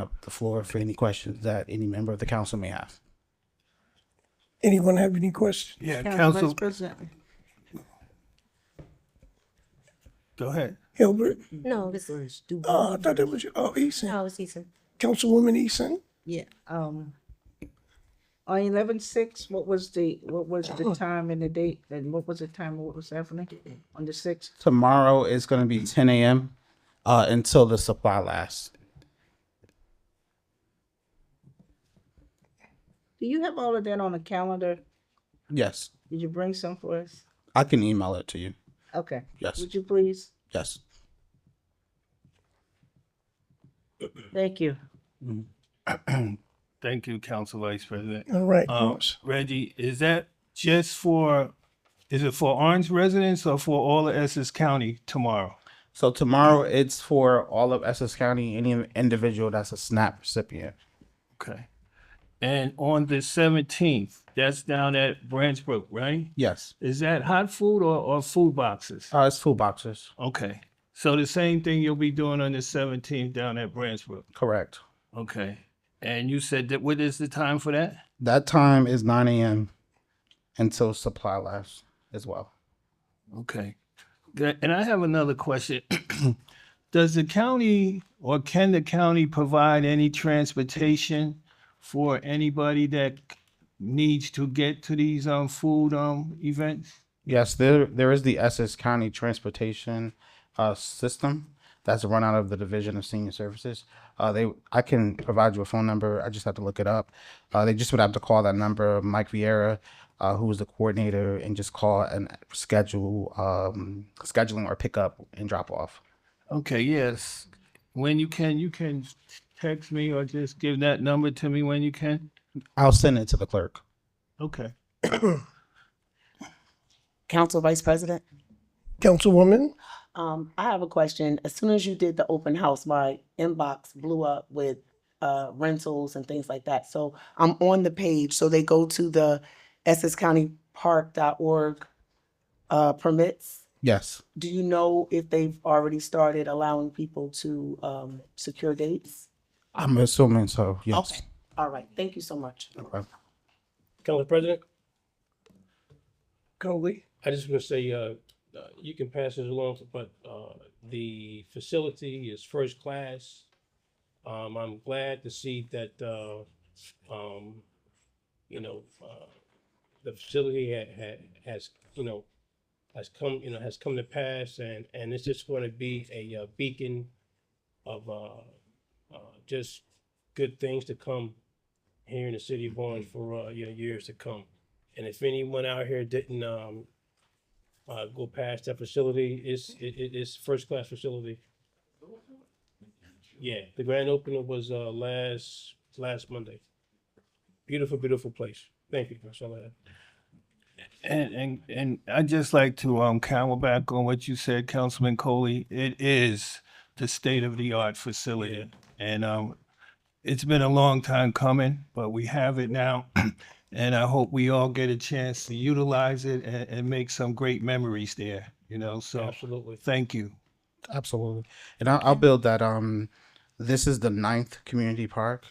up the floor for any questions that any member of the council may have. Anyone have any questions? Yeah, Council Council, Vice President. go ahead. Hilbert? No, this is Uh, I thought that was, oh, Eason. no, it's Ethan. Councilwoman Eason? Yeah, um, on eleven six, what was the, what was the time and the date, and what was the time, of what was happening on the sixth? Tomorrow is going to be 10 a.m. Uh, until the supply lasts. Do you have all of that on the calendar? Yes, Did you bring some for us? I can email it to you. Okay. Yes, Would you please? yes. Thank you. Thank you, Council Vice President. All right. Um, Reggie, is that just for, is it for Orange residents or for all of Essex County tomorrow? So tomorrow it's for all of Essex County, any individual that's a SNAP recipient. Okay. And on the seventeenth, that's down at Branch Brook, right? Yes, Is that hot food or, or food boxes? uh, it's food boxes. Okay. So the same thing you'll be doing on the seventeenth down at Branch Brook. Correct. Okay. And you said that, what is the time for that? That time is 9 a.m. until supply lasts as well. Okay. Good. And I have another question. Does the county or can the county provide any transportation for anybody that needs to get to these um food um events? Yes, there there is the Essex County Transportation uh, System that's run out of the Division of Senior Services. Uh, they I can provide you a phone number. I just have to look it up. Uh, they just would have to call that number, Mike Vieira, uh, who is the coordinator, and just call and schedule um, scheduling or pickup and drop off. Okay, yes. When you can, you can text me or just give that number to me when you can. I'll send it to the clerk. Okay. Council Vice President, Councilwoman? um, I have a question. As soon as you did the open house, my inbox blew up with uh, rentals and things like that. So I'm on the page. So they go to the EssexCountyPark.org uh, permits. Yes, Do you know if they've already started allowing people to um, secure dates? I'm assuming so. Yes. Okay. All right. Thank you so much. Okay. Council President, Coley? I just want to say, uh, uh, you can pass this along, but, uh, the facility is first class. Um, I'm glad to see that, uh, um, you know, uh, the facility ha- ha- has, you know, has come, you know, has come to pass and, and it's just going to be a uh, beacon of, uh, uh, just good things to come here in the city of Orange for, uh, you know, years to come. And if anyone out here didn't um uh go past that facility, it's it it is first class facility. Yeah, the grand opening was uh last last Monday. Beautiful, beautiful place. Thank you, that's all I have. And and and I'd just like to um camel back on what you said, Councilman Coley. It is the state of the art facility. And um it's been a long time coming, but we have it now. And I hope we all get a chance to utilize it and, and make some great memories there, you know, so Absolutely. thank you. Absolutely. And I'll, I'll build that. Um, this is the ninth community park,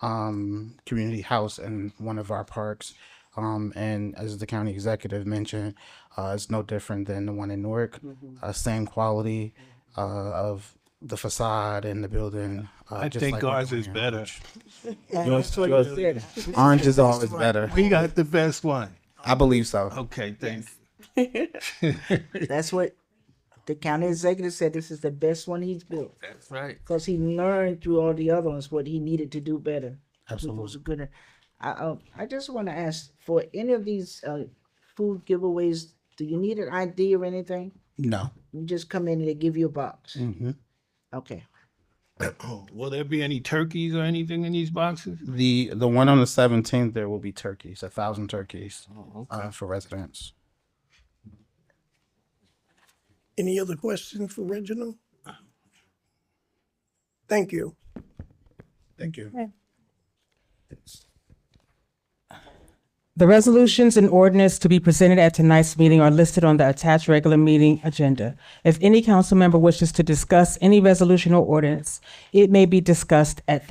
um, community house in one of our parks. Um, and as the county executive mentioned, uh, it's no different than the one in Newark. Uh, same quality uh, of the facade and the building. Uh, I just think like ours we're is doing. better. Yours- yours- Orange is always better. We got the best one. I believe so. Okay, thanks. That's what the county executive said, this is the best one he's built. That's right. Cause he learned through all the other ones what he needed to do better. It was Absolutely. a good, I, uh, I just wanna ask, for any of these, uh, food giveaways, do you need an ID or anything? No. You just come in and they give you a box? hmm Okay. Will there be any turkeys or anything in these boxes? The the one on the seventeenth, there will be turkeys, a thousand turkeys uh, for residents. Any other questions for Reginald? Thank you. Thank you. The resolutions and ordinance to be presented at tonight's meeting are listed on the attached regular meeting agenda. If any council member wishes to discuss any resolution or ordinance, it may be discussed at